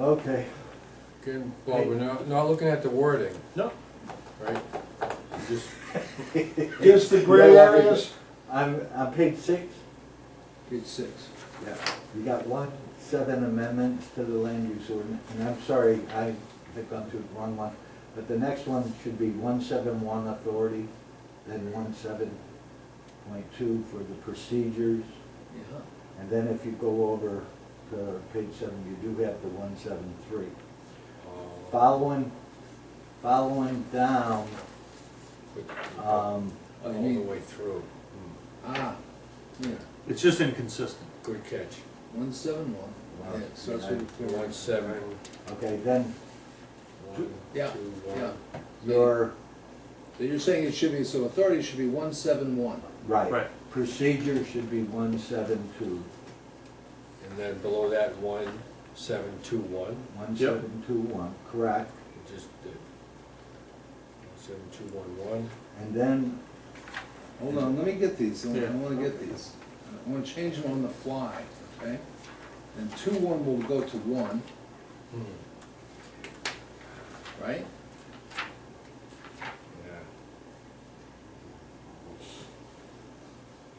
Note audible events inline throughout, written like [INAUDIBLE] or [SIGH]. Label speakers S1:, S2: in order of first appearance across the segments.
S1: Okay,
S2: Again, Bob, we're not, not looking at the wording,
S3: No,
S2: right? Just,
S3: [LAUGHS] just the gray
S1: Yeah, that'd be
S3: areas.
S1: I'm, on page six,
S4: Page six.
S1: yeah, you got one, seven amendments to the land use ordinance, and I'm sorry, I have gone through the wrong one, but the next one should be one seven one authority, then one seven point two for the procedures,
S4: Yeah.
S1: and then if you go over to page seven, you do have the one seven three.
S2: uh,
S1: Following, following down, um,
S2: Uh, all the way through. Hmm.
S4: Ah, yeah,
S3: It's just inconsistent.
S2: Good catch.
S4: one seven one.
S1: Wow.
S4: Yeah, so that's what
S2: One, seven,
S1: okay, then
S2: one, two,
S4: Yeah, yeah.
S2: one.
S1: your,
S4: So you're saying it should be, so authority should be one seven one.
S1: right,
S3: Right.
S1: procedure should be one seven two.
S2: And then below that, one, seven, two, one,
S1: One
S3: Yep.
S1: seven two one, correct.
S2: just the, seven, two, one, one.
S1: And then,
S4: Hold on, let me get these, I wanna- I
S3: Yeah.
S4: wanna get these. I wanna change them on the fly, okay? And two one will go to one,
S2: Hmm,
S4: right?
S2: yeah.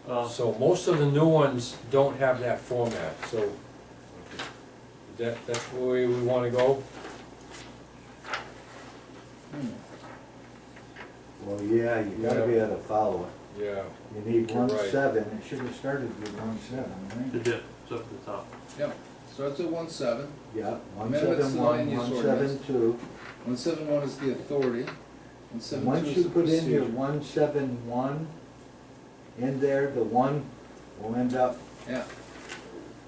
S3: Uh,
S2: So most of the new ones don't have that format, so that, that's the way we wanna go?
S4: Hmm.
S1: well, yeah, you gotta be able to follow it.
S2: Yeah,
S1: You need
S2: You're
S1: one
S2: right.
S1: seven, it should have started with one seven,
S3: The
S1: right?
S3: dip, it's up at the top.
S4: Yep, starts at one seven.
S1: Yeah, one
S4: Amendments to
S1: seven
S4: the land
S1: one,
S4: use
S1: one seven
S4: ordinance.
S1: two.
S4: One seven one is the authority, one seven two
S1: Once
S4: is
S1: you
S4: the
S1: put in your
S4: procedure.
S1: one seven one in there, the one will end up,
S4: Yeah.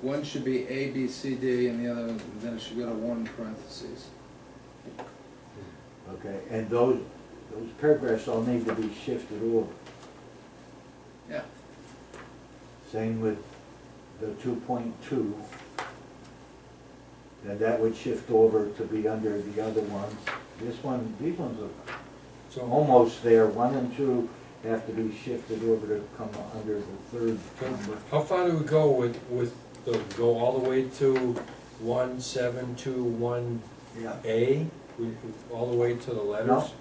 S4: One should be A, B, C, D, and the other, then it should go to one parentheses.
S1: okay, and those, those paragraphs all need to be shifted over.
S4: Yeah,
S1: Same with the two point two. And that would shift over to be under the other ones. This one, these ones are
S2: so
S1: almost there, one and two have to be shifted over to come under the third number.
S2: How far do we go with, with the, go all the way to one, seven, two, one,
S1: Yeah.
S2: A? We- we- All the way to the
S1: No,
S2: letters?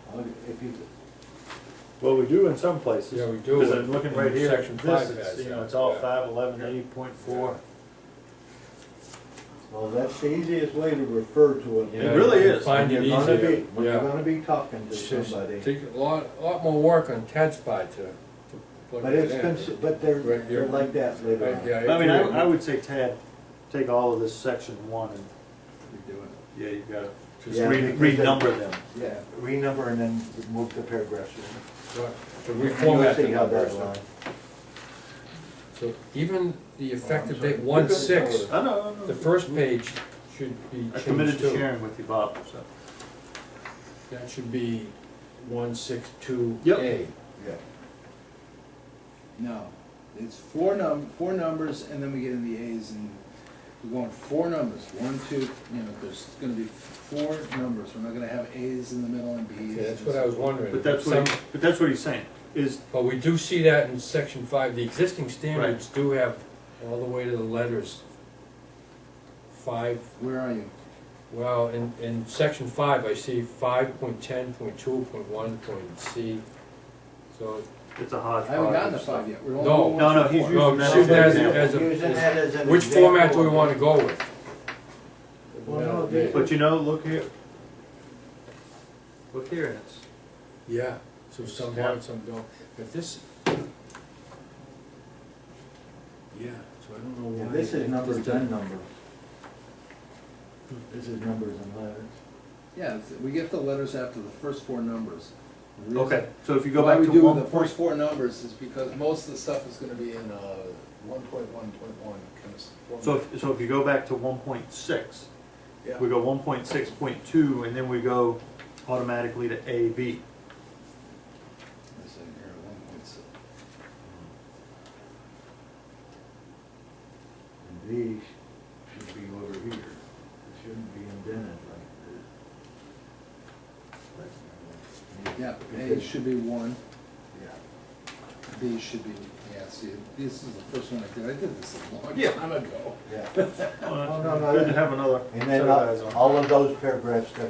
S1: if you,
S5: Well, we do in some places.
S2: Yeah, we do.
S5: Because I'm looking right here,
S2: Section
S5: this
S2: five has
S5: is, you know,
S2: that,
S5: it's all
S2: yeah.
S5: five eleven eight point four.
S1: well, that's the easiest way to refer to it.
S2: Yeah,
S3: It really
S2: you
S3: is.
S2: Find
S1: When
S2: it
S1: you're gonna be-
S2: easier,
S1: When you're
S2: yeah.
S1: gonna be talking to
S2: It's just
S1: somebody.
S2: Take a lot, lot more work on Ted's part to, to plug
S1: But
S2: it
S1: it's,
S2: in.
S1: cons- but they're,
S2: Right,
S1: they're
S2: yeah.
S1: like that later
S2: Right,
S1: on.
S2: yeah,
S5: I mean, I,
S2: agree.
S5: I would say Tad, take all of this section one and,
S4: we do it.
S5: yeah, you gotta just
S1: Yeah,
S5: re-
S1: because they-
S5: renumber them.
S1: Yeah, renumber and then move the paragraphs. in.
S2: Right, To reformat the
S1: You'll see how that
S2: numbers.
S1: line-
S2: So even the
S5: Oh,
S2: effective
S1: sorry.
S2: date, one, six,
S5: I know, I
S2: the
S5: know.
S2: first page should be
S5: I
S2: changed
S5: committed to
S2: too.
S5: sharing with you, Bob, so.
S2: That should be one, six, two,
S3: Yep.
S2: A.
S1: Yeah.
S4: No, it's four num, four numbers, and then we get in the As, and we're going four numbers, one, two, you know, there's gonna be four numbers, we're not gonna have As in the middle and Bs.
S2: Okay, that's what I was wondering.
S5: But that's
S2: Some-
S5: what, he- but that's what he's saying, is,
S2: But we do see that in section five, the existing standards do have all the way to the letters. Five,
S4: Where are you?
S2: well, in, in section five, I see five point ten, point two, point one, point C. So,
S5: it's a
S4: I
S5: hodgepodge.
S4: haven't gotten to
S5: of stuff.
S4: five yet, we're only.
S2: No.
S4: doing one
S5: No, no,
S4: through
S5: he's
S4: four.
S5: using
S2: no,
S5: that
S2: shoot that as,
S5: as an
S2: as,
S5: example.
S1: Using
S2: a-
S1: that as an
S2: which format do
S1: example.
S2: we wanna go with?
S1: Well, no, they-
S5: But you know, look here. Look here, and it's,
S2: Yeah, so some have, some don't, but this. Yeah, so I don't know
S1: Yeah,
S2: why.
S1: This is
S2: it
S1: numbers
S2: doesn't-
S1: and numbers. This is numbers and letters.
S4: Yeah, it's- we get the letters after the first four numbers. The reason-
S5: okay, so if you go
S4: Why
S5: back
S4: we
S5: to
S4: do
S5: one
S4: the
S5: point
S4: first four numbers is because most of the stuff is gonna be in, uh, one point one, point one, kind of. format.
S5: So if, so if you go back to one point six,
S4: Yeah.
S5: we go one point six point two, and then we go automatically to A, B.
S4: This in here, one point six.
S1: And these should be over here. It shouldn't be indented like this.
S4: Yeah, A should be one,
S1: Yeah.
S4: B should be, yeah, see, this is the first one I did, I did this a
S5: Yeah.
S4: long time ago.
S1: yeah.
S5: Well,
S2: [LAUGHS]
S1: No,
S4: Oh,
S1: no, no,
S5: Good to
S1: that-
S5: have another
S1: And
S5: set
S1: then
S5: of eyes on.
S1: all all of those paragraphs that